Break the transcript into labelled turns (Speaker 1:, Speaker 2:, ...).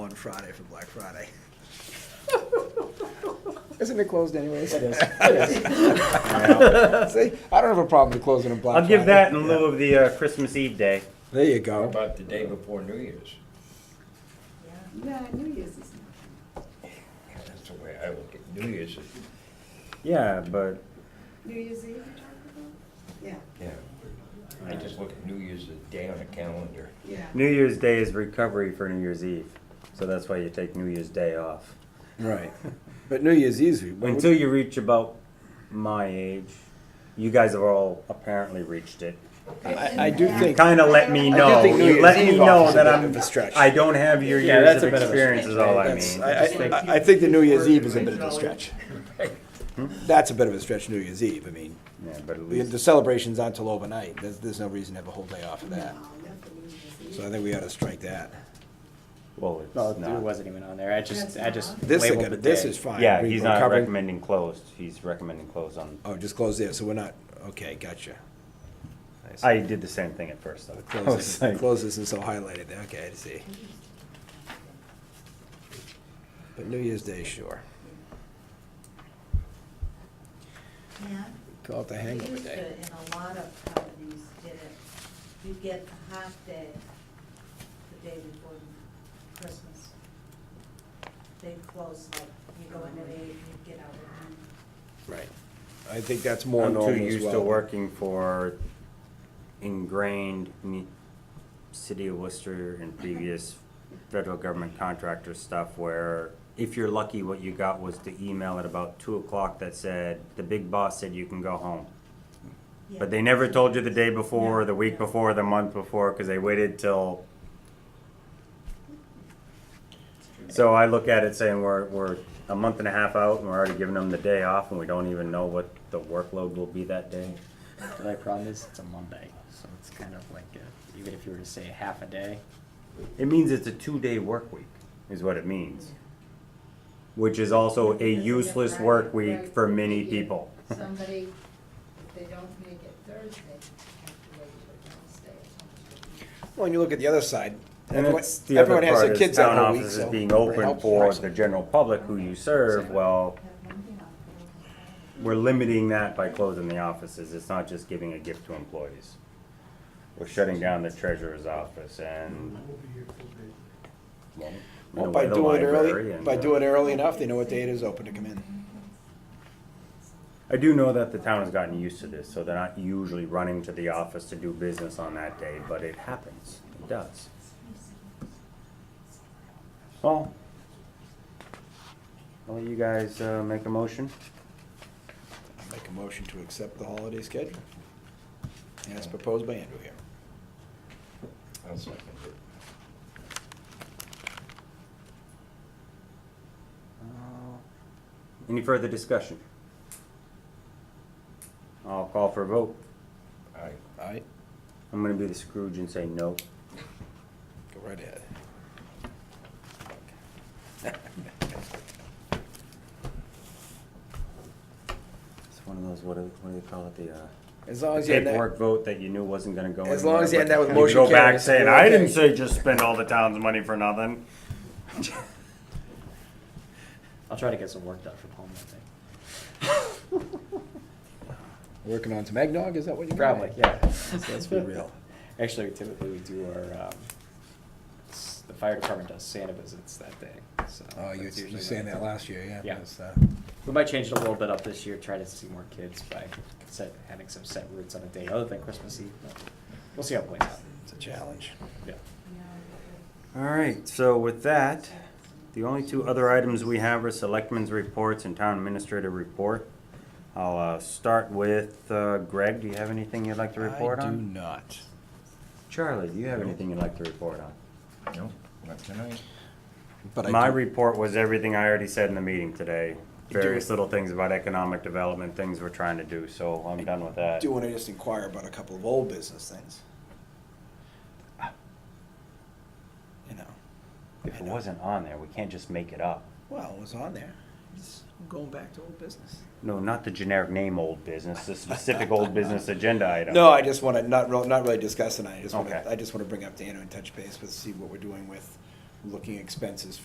Speaker 1: on Friday for Black Friday.
Speaker 2: Isn't it closed anyways?
Speaker 3: It is.
Speaker 2: See, I don't have a problem with closing a Black
Speaker 4: I'll give
Speaker 2: Friday.
Speaker 4: that in lieu of the uh, Christmas Eve day.
Speaker 2: There you
Speaker 3: How
Speaker 2: go.
Speaker 3: about the day before New Year's?
Speaker 5: No, New Year's is not.
Speaker 3: That's the way I look at New Year's. is-
Speaker 4: Yeah, but
Speaker 5: New Year's Eve you're talking about? Yeah,
Speaker 3: Yeah. I just look at New Year's as a day on a calendar.
Speaker 5: yeah.
Speaker 4: New Year's Day is recovery for New Year's Eve, so that's why you take New Year's Day off
Speaker 2: Right. But New Year's Eve. what
Speaker 4: until
Speaker 2: would-
Speaker 4: you reach about my age. You guys have all apparently reached it.
Speaker 2: I, I do think.
Speaker 4: Kind of let me
Speaker 2: I do
Speaker 4: know.
Speaker 2: think New
Speaker 4: You
Speaker 2: Year's
Speaker 4: let me
Speaker 2: Eve
Speaker 4: know
Speaker 2: offers a
Speaker 4: that
Speaker 2: bit
Speaker 4: I'm.
Speaker 2: of a stretch.
Speaker 4: I don't have your
Speaker 6: Yeah,
Speaker 4: years
Speaker 6: that's
Speaker 4: of
Speaker 6: a bit of a
Speaker 4: experience. Is all I
Speaker 2: That's-
Speaker 4: mean.
Speaker 2: I, I, I think the New Year's Eve is a bit of a stretch. That's a bit of a stretch, New Year's Eve. I mean,
Speaker 4: Yeah, but at
Speaker 2: the the
Speaker 4: least
Speaker 2: celebrations aren't till overnight. There's, there's no reason to have a whole day off of that.
Speaker 5: No, not for New Year's
Speaker 2: So
Speaker 5: Eve.
Speaker 2: I think we ought to strike that.
Speaker 4: well, it's
Speaker 6: No, it
Speaker 4: not.
Speaker 6: wasn't even on there. I just, I just
Speaker 2: This, I
Speaker 6: labeled the
Speaker 2: gotta- this
Speaker 6: day.
Speaker 2: is fine.
Speaker 4: Yeah,
Speaker 2: We-
Speaker 4: he's
Speaker 2: we're
Speaker 4: not
Speaker 2: covering-
Speaker 4: recommending closed. He's recommending closed on.
Speaker 2: Oh, just close there, so we're not, okay, gotcha. see.
Speaker 4: I did the same thing at first. Though. I
Speaker 2: Close
Speaker 4: was
Speaker 2: this,
Speaker 4: like,
Speaker 2: close this and so highlighted there, okay, I see. But New Year's Day, sure.
Speaker 7: Yeah.
Speaker 2: Call it the hangover
Speaker 7: Used
Speaker 2: day.
Speaker 7: to, And a lot of companies did it. You get the half day, the day before Christmas. They close, like, you go in at eight, you get out at nine.
Speaker 2: Right. I think that's more
Speaker 4: I'm
Speaker 2: normal
Speaker 4: too
Speaker 2: as well.
Speaker 4: used to working for ingrained ne- city of Worcester and previous federal government contractor stuff where if you're lucky, what you got was the email at about two o'clock that said, the big boss said you can go home. But they never told you the day before, the week before, the month before, because they waited till. So I look at it saying we're, we're a month and a half out and we're already giving them the day off and we don't even know what the workload will be that day.
Speaker 6: The only problem is it's a Monday, so it's kind of like, a- even if you were to say half a day,
Speaker 4: It means it's a two-day work week, is what it means. Which is also a useless work week for many people.
Speaker 7: Somebody, if they don't make it Thursday, have to wait till Wednesday or something.
Speaker 2: Well, and you look at the other side,
Speaker 4: And
Speaker 2: everyone,
Speaker 4: it's the other
Speaker 2: everyone has
Speaker 4: part
Speaker 2: their
Speaker 4: is
Speaker 2: kids out
Speaker 4: town
Speaker 2: all week, so.
Speaker 4: offices being
Speaker 2: it
Speaker 4: open
Speaker 2: helps.
Speaker 4: for the general public who you serve, well,
Speaker 7: Have Monday off, they don't have
Speaker 4: we're limiting that by closing the offices. It's not just giving a gift to employees. We're shutting down the treasurer's office and.
Speaker 2: Well, by
Speaker 4: the
Speaker 2: doing it
Speaker 4: library
Speaker 2: early,
Speaker 4: and-
Speaker 2: by doing it early enough, they know what day it is open to come in.
Speaker 4: I do know that the town has gotten used to this, so they're not usually running to the office to do business on that day, but it happens. It does. Well, I'll let you guys uh, make a motion.
Speaker 2: I Make a motion to accept the holiday schedule. As proposed by Andrew here.
Speaker 3: I'll second it.
Speaker 4: Oh. Any further discussion? I'll call for a vote.
Speaker 3: Aye.
Speaker 2: Aye,
Speaker 4: I'm gonna be the Scrooge and say no.
Speaker 2: go right ahead.
Speaker 4: It's one of those, what do, what do they call it, the, uh,
Speaker 2: As long as you end up,
Speaker 4: paperwork vote that you knew wasn't gonna go anywhere.
Speaker 2: As long as you end
Speaker 4: but
Speaker 2: up with
Speaker 4: you
Speaker 2: motion
Speaker 4: Go back
Speaker 2: carries,
Speaker 4: saying,
Speaker 2: we're
Speaker 4: I
Speaker 2: okay."
Speaker 4: didn't say just spend all the town's money for nothing.
Speaker 6: I'll try to get some work done from home, I think.
Speaker 2: working on some eggnog, is that what you're?
Speaker 6: Probably, yeah.
Speaker 2: Let's be real.
Speaker 6: Actually, typically we do our, um, s- the fire department does Santa visits that day, so.
Speaker 2: Oh, you
Speaker 6: that's
Speaker 2: you were
Speaker 6: usually
Speaker 2: saying
Speaker 6: when-
Speaker 2: that last year, yeah.
Speaker 6: Yeah.
Speaker 2: that's, uh,
Speaker 6: We might change it a little bit up this year, try to see more kids by set, having some set routes on a day other than Christmas Eve. but We'll see how it plays out.
Speaker 2: It's a challenge.
Speaker 6: Yeah.
Speaker 4: All right, so with that, the only two other items we have are selectmen's reports and town administrator report. I'll, uh, start with, uh, Greg, do you have anything you'd like to report
Speaker 2: I do
Speaker 4: on?
Speaker 2: not.
Speaker 4: Charlie, do you have anything you'd like to report on?
Speaker 3: No, not tonight.
Speaker 2: But
Speaker 4: My
Speaker 2: I do,
Speaker 4: report was everything I already said in the meeting today.
Speaker 2: do-
Speaker 4: Various little things about economic development, things we're trying to do, so I'm done with that.
Speaker 2: do wanna just inquire about a couple of old business things. You know,
Speaker 4: If it wasn't on there, we can't just make it up.
Speaker 2: well, it was on there, It's going back to old business.
Speaker 4: No, not the generic name old business, the specific old business agenda item.
Speaker 2: No, I just want to not real, not really discuss tonight. I just want
Speaker 4: Okay.
Speaker 2: to, I just want to bring up to Anna and touch base with, see what we're doing with looking expenses